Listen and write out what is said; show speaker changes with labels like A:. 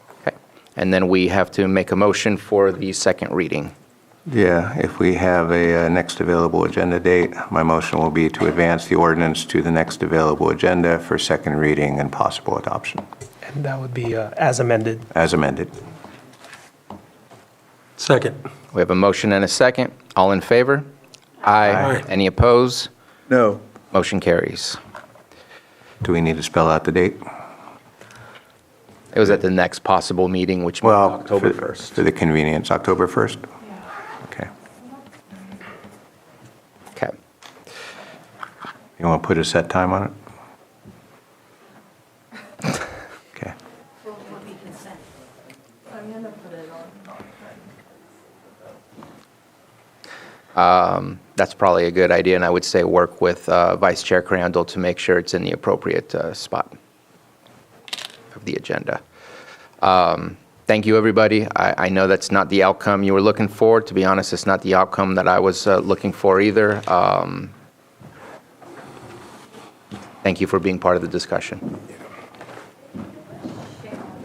A: And then we have to make a motion for the second reading.
B: Yeah, if we have a uh, next available agenda date, my motion will be to advance the ordinance to the next available agenda for second reading and possible adoption,
C: And that would be uh, as amended.
B: as amended.
D: Second.
A: We have a motion and a second. All in favor?
D: Aye.
A: Any opposed?
E: No.
A: Motion carries.
B: Do we need to spell out the date?
A: It was at the next possible meeting, which was
B: Well,
A: October
B: for-
A: 1st.
B: For the convenience, October 1st? Okay.
A: Okay.
B: You want to put a set time on it? Okay.
A: That's probably a good idea, and I would say work with uh, Vice Chair Crandall to make sure it's in the appropriate uh, spot of the agenda. Um, Thank you, everybody. I I know that's not the outcome you were looking for. To be honest, it's not the outcome that I was uh, looking for either. Um, Thank you for being part of the discussion.